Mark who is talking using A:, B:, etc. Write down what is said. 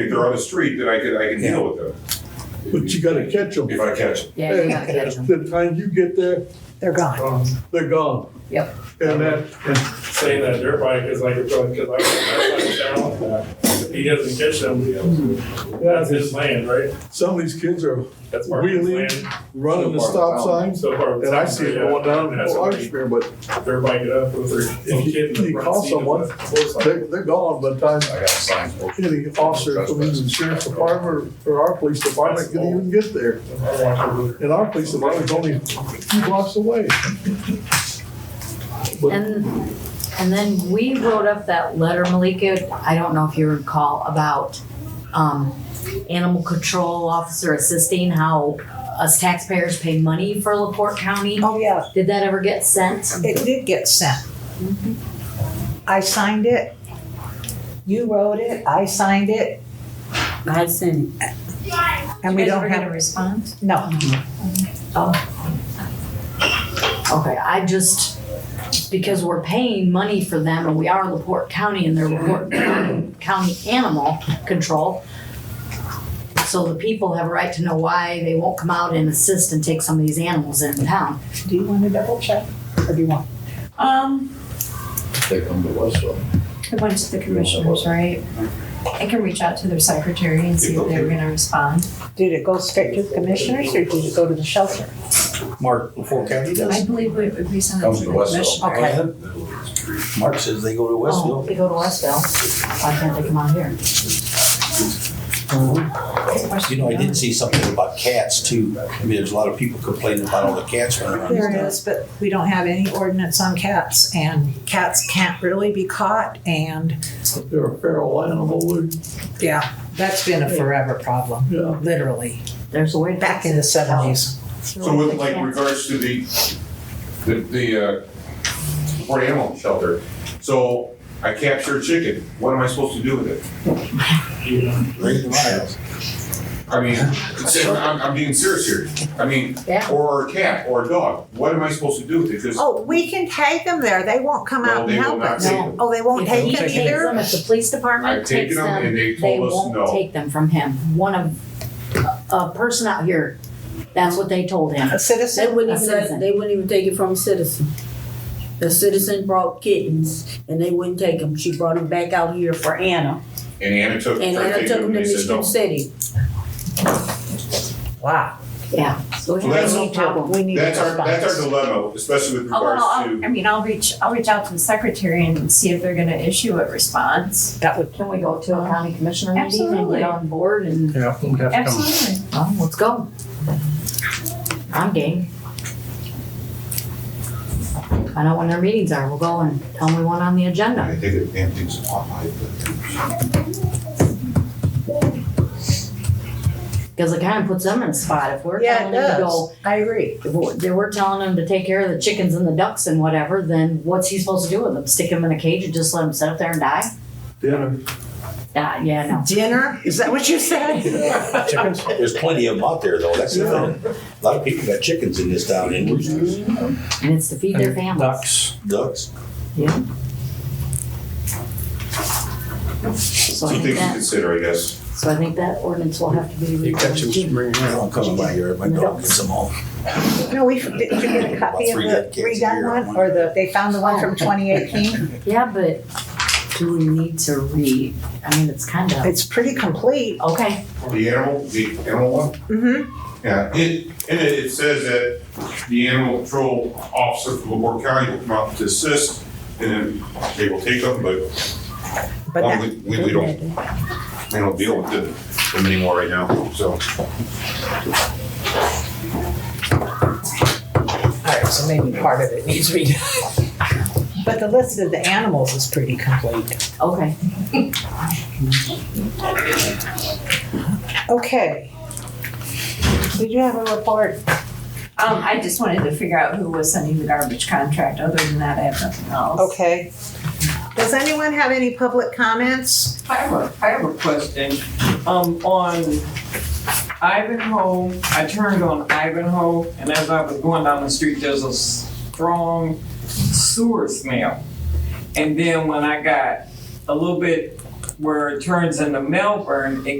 A: if they're on the street, then I can, I can deal with them
B: But you gotta catch them.
A: if I catch them.
C: Yeah, you gotta catch 'em.
B: The time you get there,
D: They're gone.
B: they're gone.
C: Yep.
B: And that,
E: saying that dirt bike is like a drug, because I was down with that. If he doesn't catch them, you know, that's his land, right?
B: some of these kids are
E: That's part of his
B: really
E: land.
B: running the stop signs.
E: So far.
B: And I see it going down
E: That's
B: to
E: why
B: Larkspur, but
E: Dirt bike it up with her, some
B: you-
E: kid in the
B: you
E: front
B: call
E: seat of
B: someone,
E: the motorcycle.
B: they're, they're gone by the time
F: I got signs. both-
B: any officer from the sheriff's department or or our police department can even get there.
E: I watch her with her.
B: And our police department's only a few blocks away.
C: And, and then we wrote up that letter, Malika, I don't know if you recall, about, um, animal control officer assisting, how us taxpayers pay money for LaPorte County.
D: Oh, yeah,
C: Did that ever get sent?
D: it did get sent. I signed it. You wrote it, I signed it,
G: I sent it.
D: and we don't
G: a
D: have,
G: response?
D: no.
C: Okay, I just, because we're paying money for them and we are LaPorte County and they're LaPorte County Animal Control. So the people have a right to know why they won't come out and assist and take some of these animals in town.
D: Do you want to double check? Or do you want?
G: Um,
F: They come to us, so.
G: I went to the commissioners, right? I can reach out to their secretary and see if they're gonna respond.
D: Did it go straight to the commissioners or did it go to the shelter?
H: Mark, before county
G: I
H: does,
G: believe it would be something
F: Comes
G: to
F: to
G: the
F: Westville.
G: commissioner.
D: Okay.
H: Mark says they go to
C: Oh,
H: Westville.
C: They go to Westville. Why can't they come out here?
D: Oh.
H: You know, I did see something about cats too. I mean, there's a lot of people complaining about all the cats running around.
D: There is, but we don't have any ordinance on cats and cats can't really be caught and,
B: They're a feral animal, they're-
D: yeah, that's been a forever problem,
B: yeah.
D: literally,
C: There's a way. to-
D: back in the seventies.
A: So with like regards to the, the, the, uh, support animal shelter, so I capture a chicken, what am I supposed to do with it?
H: Bring them out.
A: I mean, it's- I'm, I'm being serious here, I mean,
C: Yeah.
A: or a cat or a dog, what am I supposed to do with it? Because
D: Oh, we can tag them there. They won't come
A: Well,
D: out
A: they
D: and
A: will
D: help
A: not
D: us.
A: take
C: them.
D: Oh, they won't
C: If he
D: take them
C: takes them,
D: either?
C: if the police
A: I've
C: department takes
A: taken them
C: them,
A: and they
C: they
A: told us
C: won't
A: no.
C: take them from him. One of, a person out here, that's what they told him.
D: A
G: They
D: citizen?
G: wouldn't
C: A
G: even,
C: citizen.
G: let- they wouldn't even take it from a citizen. The citizen brought kittens and they wouldn't take them. She brought them back out here for Anna.
A: And Anna took,
G: And
A: tried to
G: Anna
A: take
G: took
A: them
G: them
A: and
G: to
A: they said no.
G: Michigan City.
D: Wow.
C: Yeah, so we
A: So
C: have
A: that's-
C: no problem.
D: We need a
A: That's our, that's our
D: response.
A: dilemma, especially with
I: Oh, well,
A: regards
I: I'll-
A: to,
I: I mean, I'll reach, I'll reach out to the secretary and see if they're gonna issue a response.
D: That would,
C: Can we go to a county commissioner meeting and
I: Absolutely.
C: get on board and,
H: Yeah, we have
I: Absolutely.
C: oh, let's go. I'm game. Find out when their meetings are. We'll go and tell them we want on the agenda.
A: I think it damn things a lot higher, but.
C: Because it kind of puts them in a spot. If we're
D: yeah, it
C: telling them to
D: does.
C: go,
D: I agree.
C: if we're- they we're telling them to take care of the chickens and the ducks and whatever, then what's he supposed to do with them? Stick them in a cage and just let them sit up there and die?
B: Dinner.
C: Die, yeah, no.
D: Dinner? Is that what you said?
H: Chickens, there's plenty of them out there though, that's the thing. A lot of people got chickens in this town and roosters,
C: And it's to feed their families.
H: ducks.
C: Yeah. So
A: Some
C: I think
A: things to
C: that,
A: consider, I guess.
C: so I think that ordinance will have to be
H: You catch them,
C: reviewed.
H: bring them out. I'm coming by here, my dog gets them all.
D: No, we, did you get a copy of
H: Three
D: the
H: dead kids a year.
D: redone one or the, they found the one from twenty eighteen?
C: Yeah, but do we need to read? I mean, it's kind of,
D: It's pretty complete.
C: okay,
A: The animal, the animal one?
D: Mm-hmm.
A: Yeah, it, and it, it says that the animal control officer from LaPorte County will come out to assist, and then they will take them, but
D: But
A: um,
D: that,
A: we, we, we don't, we don't deal with them, them anymore right now, so.
D: all right, so maybe part of it needs redone. But the list of the animals is pretty complete.
C: okay.
D: Okay. Did you have a report?
I: Um, I just wanted to figure out who was sending the garbage contract. Other than that, I have nothing else.
D: Okay. Does anyone have any public comments?
J: I have a, I have a question. Um, on Ivanhoe, I turned on Ivanhoe, and as I was going down the street, there's a strong sewer smell. And then when I got a little bit where it turns into Melbourne, it